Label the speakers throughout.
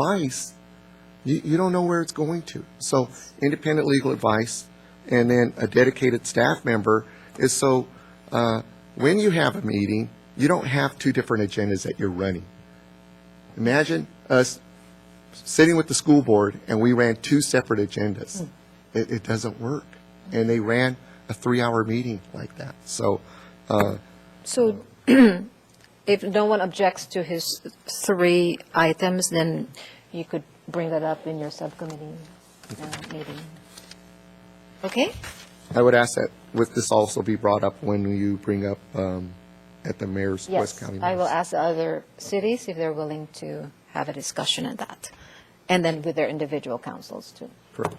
Speaker 1: advice, you, you don't know where it's going to. So independent legal advice and then a dedicated staff member is so, uh, when you have a meeting, you don't have two different agendas that you're running. Imagine us sitting with the school board and we ran two separate agendas. It, it doesn't work. And they ran a three-hour meeting like that. So, uh,
Speaker 2: So if no one objects to his three items, then you could bring that up in your subcommittee uh, meeting. Okay?
Speaker 1: I would ask that with this also be brought up when you bring up, um, at the mayor's West
Speaker 2: Yes,
Speaker 1: County.
Speaker 2: I will
Speaker 1: Mayor's.
Speaker 2: ask the other cities if they're willing to have a discussion on that, and then with their individual councils too.
Speaker 1: Correct.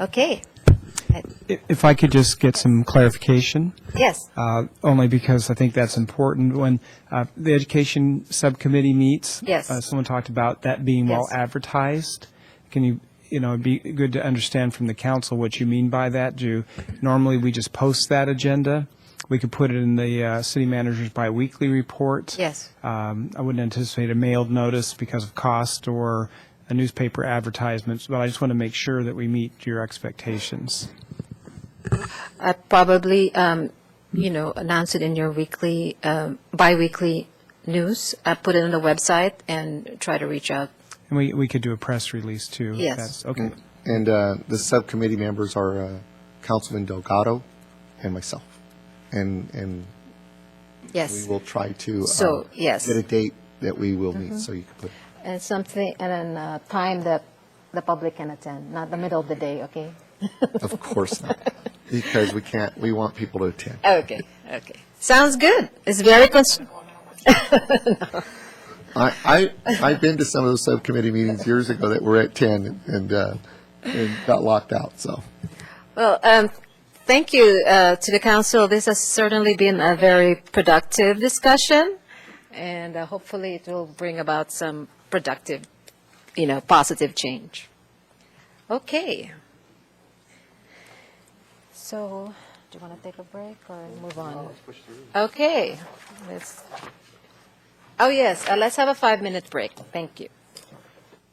Speaker 2: Okay. I-
Speaker 3: If I could just get some clarification,
Speaker 2: Yes,
Speaker 3: uh, only because I think that's important. When uh, the Education Subcommittee meets,
Speaker 2: Yes.
Speaker 3: uh, someone talked about that being well
Speaker 2: Yes.
Speaker 3: advertised. Can you, you know, it'd be good to understand from the council what you mean by that. Do, normally, we just post that agenda. We could put it in the uh, city manager's biweekly report.
Speaker 2: yes,
Speaker 3: Um, I wouldn't anticipate a mailed notice because of cost or a newspaper advertisement, but I just want to make sure that we meet your expectations.
Speaker 2: I probably, um, you know, announce it in your weekly, um, biweekly news, I put it on the website and try to reach out.
Speaker 3: And we, we could do a press release too. if
Speaker 2: Yes.
Speaker 3: that's- Okay.
Speaker 1: And uh, the subcommittee members are uh, Councilman Delgado and myself. And, and
Speaker 2: Yes.
Speaker 1: we will try to. uh,
Speaker 2: So, yes. Mm-hmm.
Speaker 1: Get a date that we will meet, so you can put.
Speaker 2: And something, and a time that the public can attend, not the middle of the day, okay?
Speaker 1: Of course not, because we can't, we want people to attend.
Speaker 2: Okay, okay. Sounds good. It's very cons-
Speaker 1: I, I, I've been to some of those subcommittee meetings years ago that were at 10 and, uh, and got locked out, so.
Speaker 2: Well, um, thank you, uh, to the council. This has certainly been a very productive discussion, and uh, hopefully it will bring about some productive, you know, positive change. Okay. So, do you want to take a break or move on? Okay, let's, oh, yes, uh, let's have a five-minute break. Thank you.